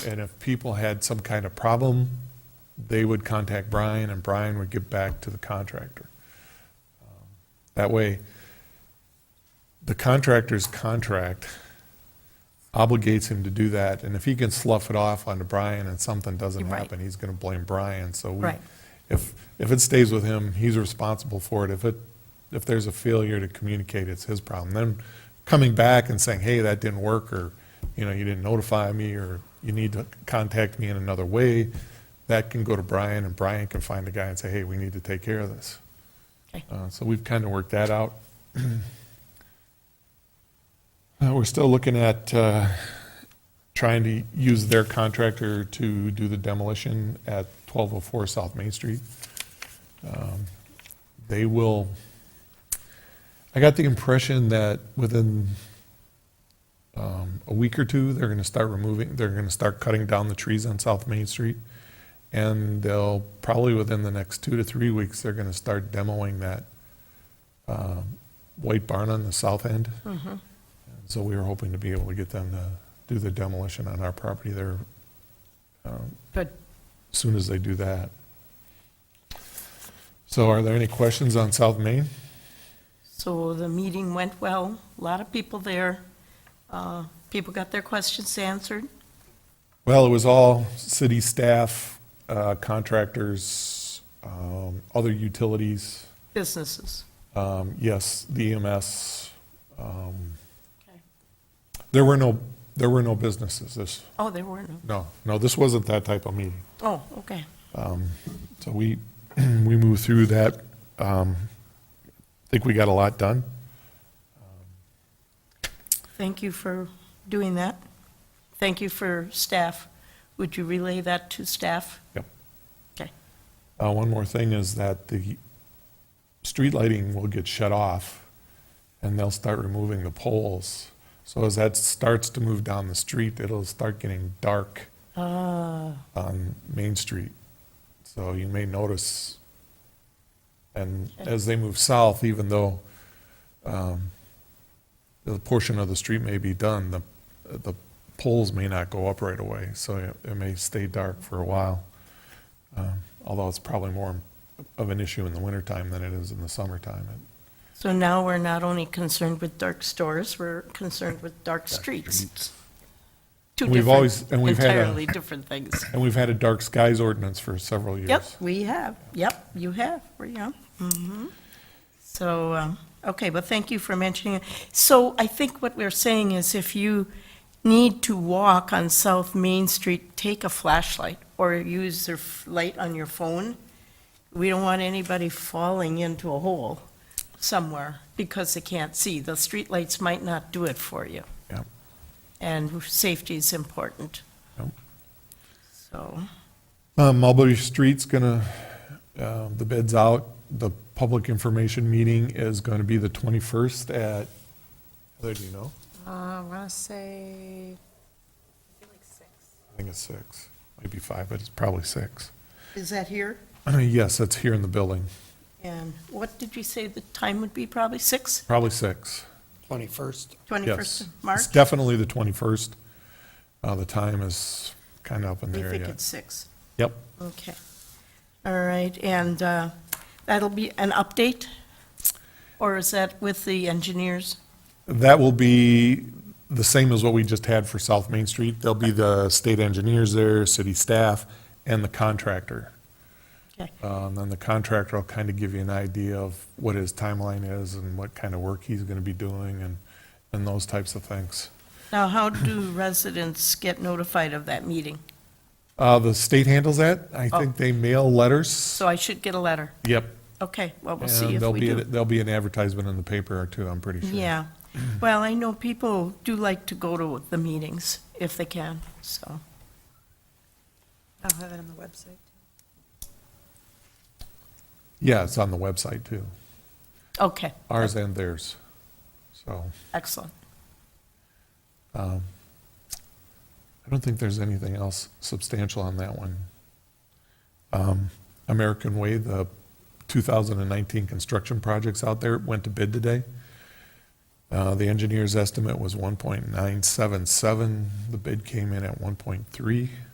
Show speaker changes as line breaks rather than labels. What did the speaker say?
And if people had some kind of problem, they would contact Brian and Brian would get back to the contractor. Um, That way, the contractor's contract obligates him to do that. And if he can slough it off onto Brian and something doesn't
Right.
happen, he's going to blame Brian. So we,
Right.
if, if it stays with him, he's responsible for it. If it, if there's a failure to communicate, it's his problem. Then coming back and saying, hey, that didn't work, or, you know, you didn't notify me, or you need to contact me in another way, that can go to Brian, and Brian can find a guy and say, hey, we need to take care of this.
Okay.
Uh, So we've kind of worked that out. Uh, We're still looking at uh, trying to use their contractor to do the demolition at 1204 South Main Street. Um, They will, I got the impression that within um, a week or two, they're going to start removing, they're going to start cutting down the trees on South Main Street. And they'll, probably within the next two to three weeks, they're going to start demoing that um, white barn on the south end. So we were hoping to be able to get them to do the demolition on our property there
But
as soon as they do that. So are there any questions on South Main?
So the meeting went well, a lot of people there. Uh, People got their questions answered.
Well, it was all city staff, uh, contractors, um, other utilities,
Businesses.
um, yes, the EMS. um,
Okay.
There were no, there were no businesses this,
Oh, there were no.
no, no, this wasn't that type of meeting.
Oh, okay.
So we, we moved through that. Um, I think we got a lot done.
Thank you for doing that. Thank you for staff. Would you relay that to staff?
Yep.
Okay.
Uh, one more thing is that the street lighting will get shut off and they'll start removing the poles. So as that starts to move down the street, it'll start getting dark on Main Street. So you may notice, and as they move south, even though um, the portion of the street may be done, the, the poles may not go up right away, so it- it may stay dark for a while although it's probably more of an issue in the wintertime than it is in the summertime.
So now we're not only concerned with dark stores, we're concerned with dark streets. Two
We've always-
different,
and we've had a-
entirely different things.
And we've had a dark skies ordinance for several years.
Yep, we have. Yep, you have. We have.
Mm-hmm.
Mhm. So, um, okay, well, thank you for mentioning it. So I think what we're saying is if you need to walk on South Main Street, take a flashlight or use the f- light on your phone. We don't want anybody falling into a hole somewhere because they can't see. The streetlights might not do it for you.
Yep.
And safety is important.
Yep.
So,
Uh, Mulberry Street's gonna, uh, the bid's out. The public information meeting is gonna be the 21st at, Heather, do you know?
Uh, I want to say,
I think it's 6. Maybe 5, but it's probably 6.
is that here?
Yes, that's here in the building.
And what did you say the time would be, probably 6,
Probably 6.
21st.
21st
Yes.
of March?
It's definitely the 21st. Uh, The time is kind of up in the
We
air
think
yet.
it's 6,
Yep.
okay. All right, and uh, that'll be an update? Or is that with the engineers?
That will be the same as what we just had for South Main Street. There'll be the state engineers there, city staff, and the contractor.
Okay,
Um, Then the contractor will kind of give you an idea of what his timeline is and what kind of work he's going to be doing and, and those types of things.
now, how do residents get notified of that meeting?
Uh, The state handles that. I think they mail letters.
Oh. So I should get a letter?
Yep.
Okay, well, we'll see
And
if
there'll
we
be,
do.
there'll be an advertisement in the paper or two, I'm pretty sure.
Yeah, well, I know people do like to go to the meetings if they can, so.
I'll have it on the website.
Yeah, it's on the website too.
Okay,
Ours and theirs. So.
excellent.
I don't think there's anything else substantial on that one. Um, American Way, the 2019 construction projects out there went to bid today. Uh, The engineer's estimate was 1.977. The bid came in at 1.3.